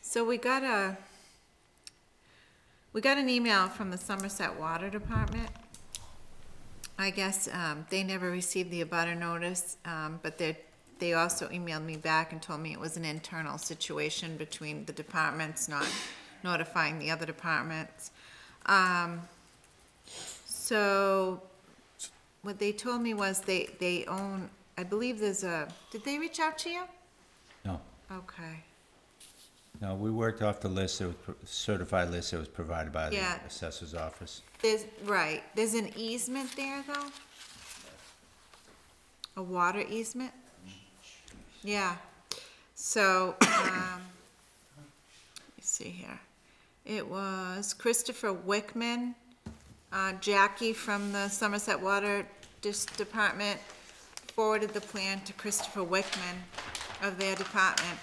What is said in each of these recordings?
So we got a, we got an email from the Somerset Water Department. I guess, um, they never received the abutter notice, um, but they, they also emailed me back and told me it was an internal situation between the departments, not notifying the other departments. Um, so what they told me was they, they own, I believe there's a, did they reach out to you? No, Okay. no, we worked off the list, that was pro- certified list that was provided by the Yeah. assessor's office. There's, right, there's an easement there, though? A water easement? Yeah, so, um, let me see here. It was Christopher Wickman, uh, Jackie from the Somerset Water Dis- Department forwarded the plan to Christopher Wickman of their department.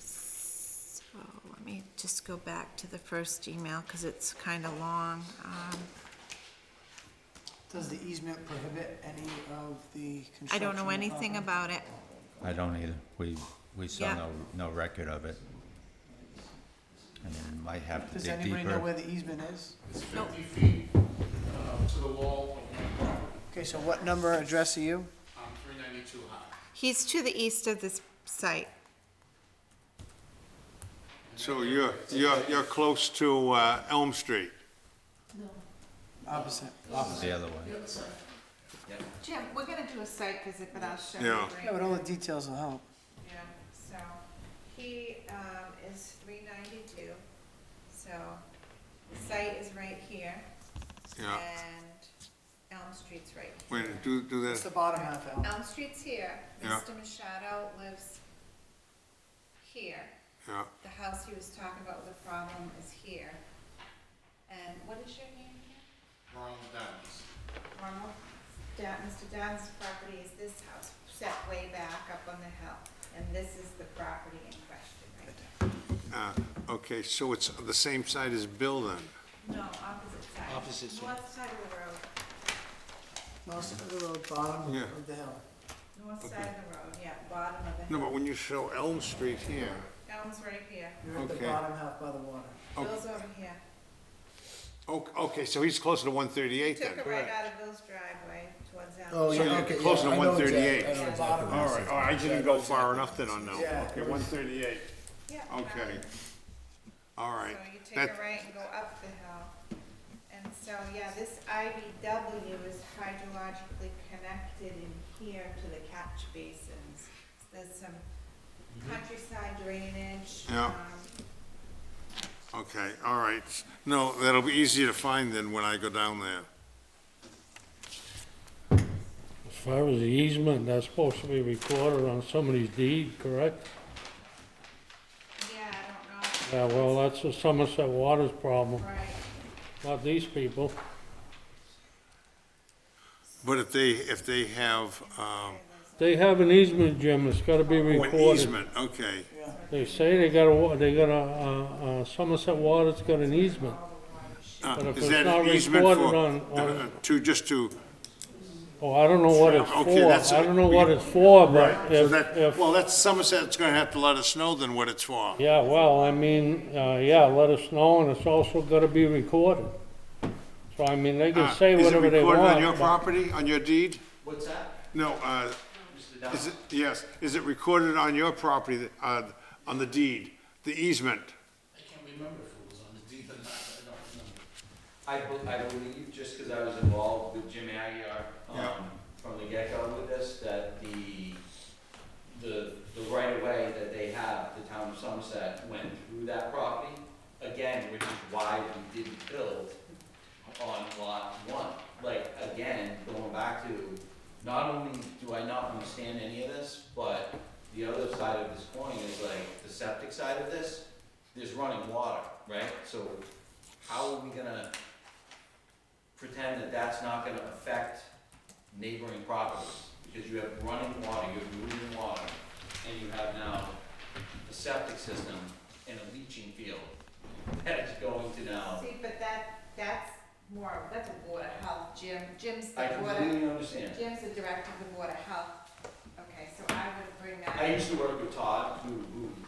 So, let me just go back to the first email, because it's kind of long. Um, Does the easement prohibit any of the construction? uh, I don't know anything of- about it. I don't either, we, we saw Yeah. no, no record of it. I mean, might have to Does dig anybody know where deeper. the easement is? It's Nope. fifty feet uh, to the wall of my property. Okay, so what number address are you? I'm three ninety-two high. He's to the east of this site. So you're, you're, you're close to uh, Elm Street. Opposite. The other way, Jim, we're gonna do a site visit, but I'll show you Yeah. Yeah, but all the details will help. Yeah, so, he, um, is three ninety-two, so, the site is right here. Yeah. And Elm Street's right. Wait, do, do It's the that. bottom half, Al. Elm Street's here, Yeah. Mr. Machado lives here, Yeah, the house he was talking about with the problem is here. And what is your name again? Ronald Downs. Normal, Da- Mr. Don's property is this house, set way back up on the hill, and this is the property in question, right? uh, okay, so it's the same side as Bill then? No, opposite side. Opposite side. North side of the road, Most of the road, bottom Yeah. of the hill. north side of the road, yeah, bottom of the No, hill. but when you show Elm Street here, Elm's right here, You're at the Okay. bottom half by the water. Oh. Bill's over here. o- okay, so he's closer to 138 then? Took a right out of Bill's driveway towards Elm. Oh, So yeah, you're okay, yeah. closer to I know exactly- 138. I know Yeah. exactly what All this right, is. all right, I didn't go far enough then on that one. Yeah. Okay, 138, Yeah. okay. All So right. you take That- a right and go up the hill. And so, yeah, this IBW is hydrologically connected in here to the catch basins. There's some countryside drainage. Mm-hmm. Yeah. um, Okay, all right. No, that'll be easier to find then when I go down there. As far as the easement, that's supposed to be recorded on somebody's deed, correct? Yeah, I Yeah, well, that's the Somerset Waters problem, don't know, right. not these people. But if they, if they have, um, They have an easement, Jim, it's gotta be oh, an recorded. easement, okay. They say they got a, wa- they got a, uh, uh, Somerset Waters got an easement. Uh, But if Is it's that not an easement for, recorded on- uh, on- uh, to, just to, Oh, I don't know what it's Okay, that's- for, I don't know what it's for, but so if, that, if, well, that's Somerset's gonna have to let us know then what it's for. yeah, well, I mean, uh, yeah, let us know, and it's also gotta be recorded. So, I mean, they Uh, can say whatever they Is it want. recorded on your but- property, on your deed? What's that? No, uh, Mr. Downs? is it, yes, is it recorded on your property, that- uh, on the deed, the easement? I can't remember if it was on the deed or not, I don't remember. I, bel- I believe, just because I was involved with Jim Aguirre, um, from the get-go with this, that the, the, the right-of-way that they have, the town of Somerset, went through that property, again, which is why we didn't build on lot one. Like, again, going back to, not only do I not understand any of this, but the other side of this coin is like, the septic side of this, there's running water, right? So how are we gonna pretend that that's not gonna affect neighboring properties? Because you have running water, you have moving water, and you have now a septic system and a leaching field that is going to now. See, but that, that's more, that's a water health, Jim, Jim's the I water, completely understand. Jim's the director of the water health. Okay, so I would bring that. I used to work with Todd, who, who